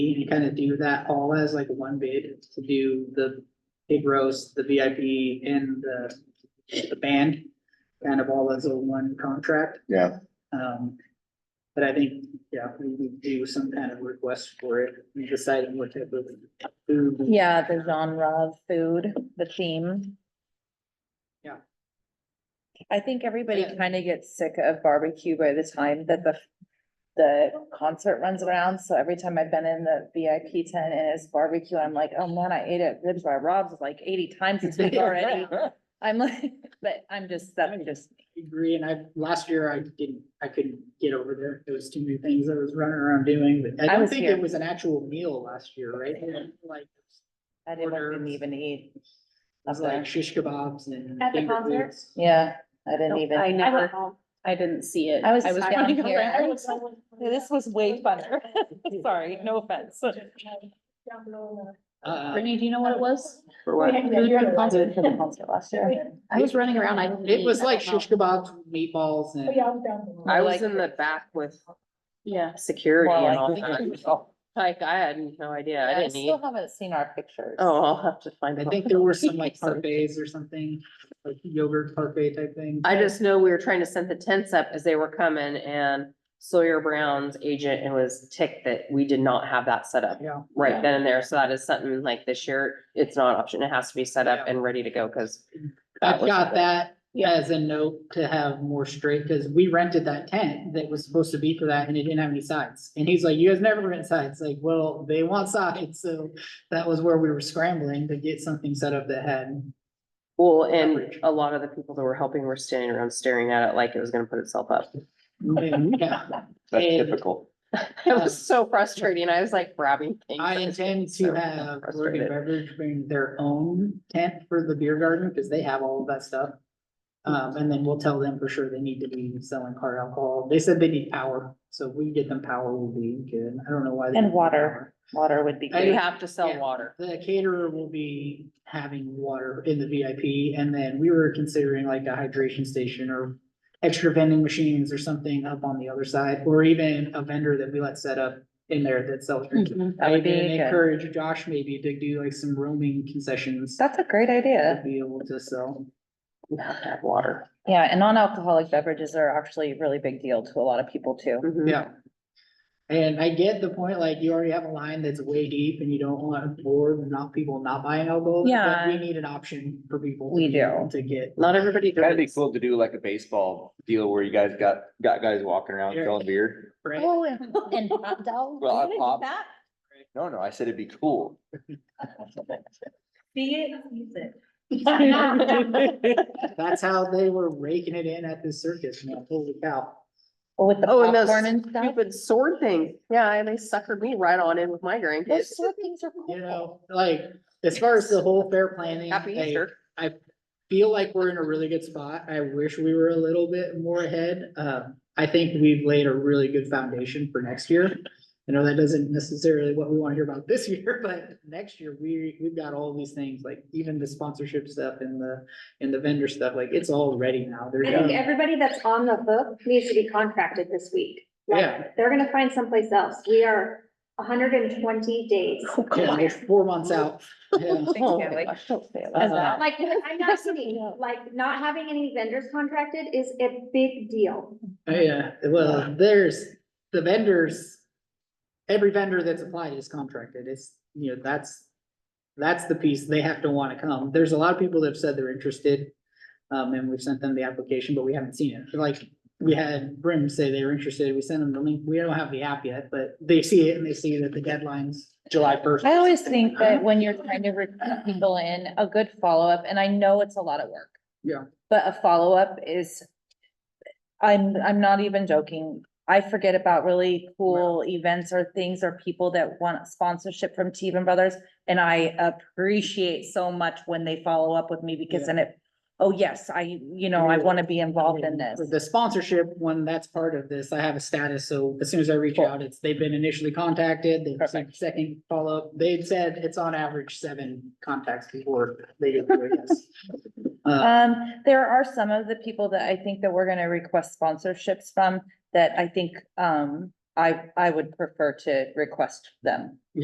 you can kind of do that all as like one bid to do the big roast, the VIP and the, the band. Kind of all as a one contract, yeah, um, but I think, yeah, we would do some kind of request for it, deciding what type of food. Yeah, the genre of food, the theme. Yeah. I think everybody Yeah. kind of gets sick of barbecue by the time that the, the concert runs around. So every time I've been in the VIP tent and it's barbecue, I'm like, oh man, I ate at ribs by Rob's like eighty times this week already. I'm like, but I'm just, that's just, I agree, and I, last year I didn't, I couldn't get over there, there was too many things I was running around doing, but I I don't was think here. it was an actual meal last year, right? Like, it I didn't Order. didn't even eat. was Up there. like shish kebabs and. At the finger concert? foods. Yeah, I didn't even. I never- never, I didn't see it. I was down here. I was always- This was way funner. Sorry, no offense. Uh, Brittany, do you know what it was? for what? Who did the concert? For the concert last year. I was running around, I didn't. it was eat, Oh, I like don't know. shish kebabs, meatballs and. I Like- was in the back with Yeah. security Well, and I all think it that. Like, I had no idea. I I didn't eat. still haven't seen our pictures. Oh, I'll have to find I it. think there were some like parfaits or something, like yogurt parfait type thing. I just know we were trying to set the tents up as they were coming and Sawyer Brown's agent and was ticked that we did not have that set up Yeah, right then and there. So that is something like this year, it's not an option. It has to be set up and ready to go because I've was got good. that as a note to have more straight, because we rented that tent that was supposed to be for that and it didn't have any sides. And he's like, you guys never rent sides, like, well, they want sides, so that was where we were scrambling to get something set up that had. well, and a lot of the people that were helping were standing around staring at it like it was gonna put itself up. Yeah. That's And- typical. It was so frustrating. I was like grabbing things. I intend to So have Lord frustrated. and Beverage bring their own tent for the beer garden, because they have all of that stuff. Um, and then we'll tell them for sure they need to be selling hard alcohol. They said they need power, so if we get them power will be good. I don't know why. they And need water. Water would be I- You good. have to sell Yeah. water. power. The caterer will be having water in the VIP, and then we were considering like a hydration station or extra vending machines or something up on the other side, or even a vendor that we let set up in there that sells drinks. That I would even be good. encourage Josh maybe to do like some roaming concessions That's a great to idea. be able to sell. You have to have water. Yeah, and non-alcoholic beverages are actually a really big deal to a lot of people too. Mm-hmm. Yeah. And I get the point, like you already have a line that's way deep and you don't want to bore and not people not buying alcohol. but Yeah. We need an option for people. to We be able do. To get. Not everybody does. That'd be cool to do like a baseball deal where you guys got, got guys walking around Yeah. selling beer. right? Oh, and hot dogs. Well, I pop. No, no, I said it'd be cool. That's how they were raking it in at this circus, man. Holy cow. With the Oh, and those popcorn and stuff. Stupid sword thing. Yeah, they suckered me right on in with my drink. Those sort of things are You cool. know, like as far as the whole fair planning. Happy like, Easter. feel like we're in a really good spot. I wish we were a little bit more ahead. Uh, I think we've laid a really good foundation for next year. I know that doesn't necessarily what we want to hear about this year, but next year, we, we've got all these things, like even the sponsorship stuff and the, and the vendor stuff, like it's all ready now. There's, I think no- everybody that's on the hook needs to be contracted this week. Like, Yeah. They're gonna find someplace else. We are hundred and twenty days. yeah, we're four months out. Yeah. Thanks, Oh my Kelly. gosh, don't say Uh, that. Like, I'm not kidding, like, not having any vendors contracted is a big deal. Oh, Yeah, well, there's the vendors. Every vendor that's applied is contracted. It's, you know, that's. That's the piece. They have to wanna come. There's a lot of people that have said they're interested. Um, and we've sent them the application, but we haven't seen it. Like, we had Brim say they were interested. We sent them the link. We don't have the app yet, but they see it and they see that the deadline's July first. I always think that when you're trying to recruit people in, a good follow-up, and I know it's a lot of work. Yeah. But a follow-up is, I'm, I'm not even joking. I forget about really cool events or things or people that want sponsorship from Teven Brothers. And I appreciate so much when they follow up with me because Yeah. then it, oh, yes, I, you know, I want to be involved in this. The sponsorship, when that's part of this, I have a status, so as soon as I reach Cool. out, it's, they've been initially contacted, they've received Perfect. second follow-up. They've said it's on average seven contacts before they get there, yes. Uh, Um, there are some of the people that I think that we're gonna request sponsorships from that I think, um, I, I would prefer to request them.